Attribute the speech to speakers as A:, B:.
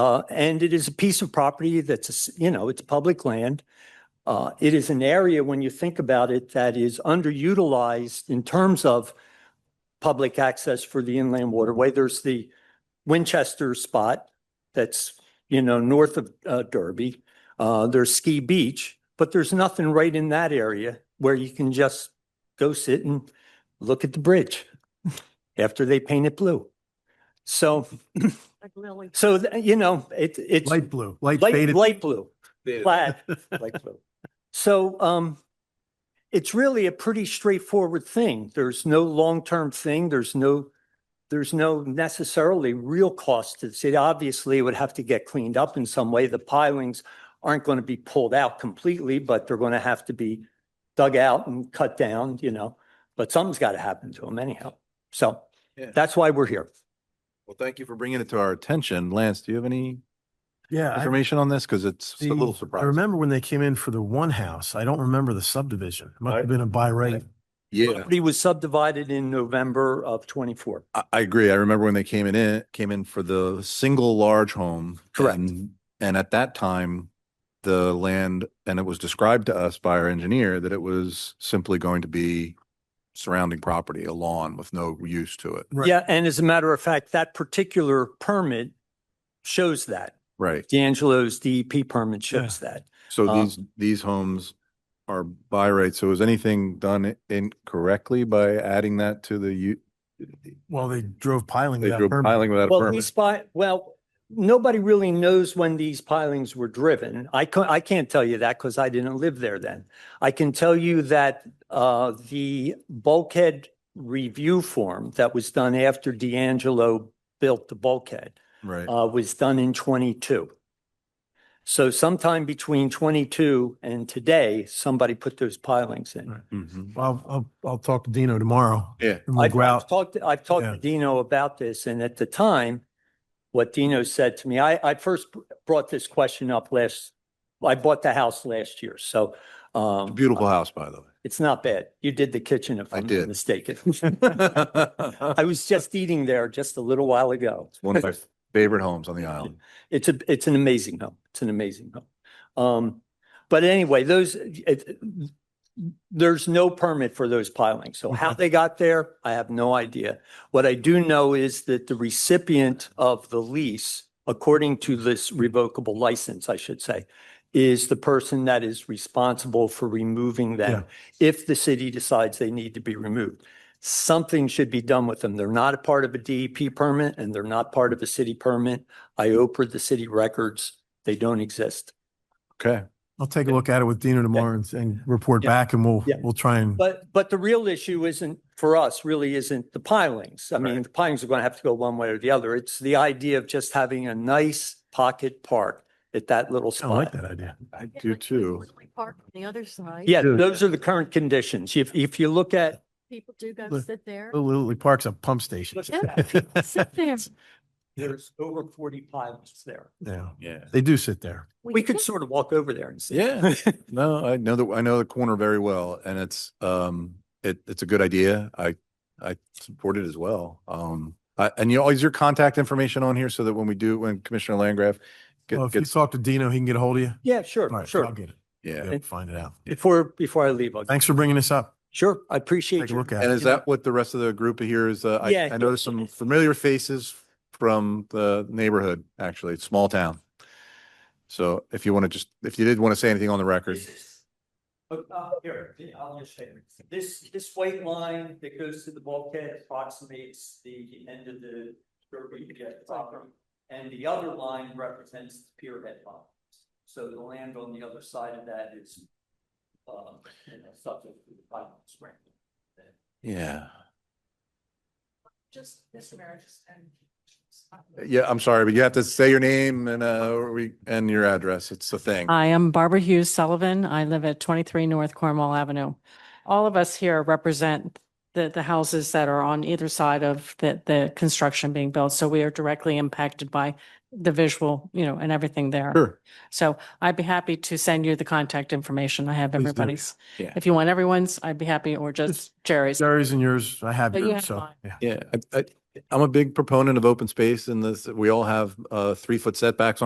A: Uh, and it is a piece of property that's, a s- you know, it's public land. Uh, it is an area, when you think about it, that is underutilized in terms of public access for the inland waterway. There's the Winchester spot that's, you know, north of, uh, Derby. Uh, there's Ski Beach, but there's nothing right in that area where you can just go sit and look at the bridge after they paint it blue. So,
B: Like Lily.
A: so, th- you know, it, it's
C: Light blue, light
A: light,
C: faded.
A: light blue,
D: Faded.
A: plaid, light blue. So, um, it's really a pretty straightforward thing. There's no long-term thing. There's no, there's no necessarily real cost to the city. Obviously, it would have to get cleaned up in some way. The pilings aren't going to be pulled out completely, but they're going to have to be dug out and cut down, you know, but something's got to happen to them anyhow. So
D: Yeah.
A: that's why we're here.
D: Well, thank you for bringing it to our attention. Lance, do you have any
C: Yeah. I-
D: information on this? Because it's a little
C: the- I
D: surprising.
C: remember when they came in for the one house. I don't remember the subdivision. It Must
D: Right.
C: have been a by right.
D: Yeah,
A: Property was subdivided in November of twenty-four.
D: I, I agree. I remember when they came in, it came in for the single large home.
A: Correct.
D: And- And at that time, the land, and it was described to us by our engineer that it was simply going to be surrounding property, a lawn with no use to it.
C: Right.
A: Yeah, and as a matter of fact, that particular permit shows that.
D: Right.
A: D'Angelo's DEP permit shows that.
D: So
C: Uh,
A: Um,
D: these, these homes are by right. So is anything done i- incorrectly by adding that to the, u-
C: Well, they drove piling
D: they
C: without
D: drew
C: permit.
D: piling without a
A: Well, these spot,
D: permit?
A: well, nobody really knows when these pilings were driven. I can I can't tell you that because I didn't live there then. I can tell you that uh, the bulkhead review form that was done after D'Angelo built the bulkhead
D: Right.
A: uh, was done in twenty-two. So sometime between twenty-two and today, somebody put those pilings in.
C: Right.
D: Mhm.
C: I'll, I'll, I'll talk to Dino tomorrow.
D: Yeah.
C: And we'll
A: I've
C: go
A: I've
C: out.
A: talked, I've talked to
C: Yeah.
A: Dino about this, and at the time, what Dino said to me, I, I first br- brought this question up last, I bought the house last year, so. um,
D: Beautiful house, by the way.
A: It's not bad. You did the kitchen, if
D: I
A: I'm not
D: did.
A: mistaken. I was just eating there just a little while ago.
D: One of my favorite homes on the island.
A: It's a, it's an amazing home. It's an amazing home. Um, but anyway, those, it, there's no permit for those pilings. So how they got there, I have no idea. What I do know is that the recipient of the lease, according to this revocable license, I should say, is the person that is responsible for removing them if the city decides they need to be removed. Something should be done with them. They're not a part of a DEP permit and they're not part of a city permit. I opened the city records. They don't exist.
D: Okay.
C: I'll take a look at it with Dino tomorrow and, and report
A: Yeah.
C: back and we'll,
A: Yeah.
C: we'll try and,
A: But, but the real issue isn't, for us, really isn't the pilings. I mean, the pilings are going to have to go one way or the other. It's the idea of just having a nice pocket park at that little
C: I like
A: spot.
C: that idea.
D: I
B: Yeah,
D: do
B: like
D: too.
B: Lily Park on the other side.
A: Yeah,
C: Dude.
A: those are the current conditions. If, if you look at,
B: People do go
C: Look. Oh.
B: sit there.
C: Little Lily Park's a pump station.
B: Yeah, people Sit there.
A: there's over forty pilings there.
C: Yeah,
D: Yeah.
C: they do sit there.
A: We could sort of walk over there and see.
D: Yeah. No, I know that, I know the corner very well and it's, um, it, it's a good idea. I, I support it as well. Um, I, and you always your contact information on here so that when we do, when Commissioner Landgraf
C: Well,
D: get-
C: if you
D: gets,
C: talk to Dino, he can get a hold of you.
A: Yeah,
C: All
A: sure,
C: right, so I'll
A: sure.
C: get it.
D: yeah.
C: Yeah, Find it out.
A: Before, before I leave, I'll,
C: Thanks for bringing this up.
A: sure, I appreciate
C: Take a
A: you.
C: look at
D: And
C: it.
D: is that what the rest of the group here is? Uh, I,
A: Yeah.
D: I noticed some familiar faces from the neighborhood, actually, it's small town. So if you want to just, if you did want to say anything on the record,
A: This is- oh, uh, Here, I'll just show you. This, this white line that goes to the bulkhead approximates the end of the Derby Jet property. And the other line represents the pier head line. So the land on the other side of that is, um, you know, subject to the final spring.
D: yeah.
B: Just um, mismarriages and.
D: Yeah, I'm sorry, but you have to say your name and, uh, we, and your address. It's the thing.
E: I am Barbara Hughes Sullivan. I live at 23 North Cornwall Avenue. All of us here represent the, the houses that are on either side of the, the construction being built. So we are directly impacted by the visual, you know, and everything there.
D: Sure.
E: So I'd be happy to send you the contact information. I have
C: Please do.
E: everybody's.
D: Yeah.
E: If you want everyone's, I'd be happy, or just Jerry's.
C: Jerry's and yours, I have
E: But you
C: yours,
E: have
C: so,
E: mine.
C: yeah.
D: Yeah, I, I, I'm a big proponent of open space and this, we all have, uh, three foot setbacks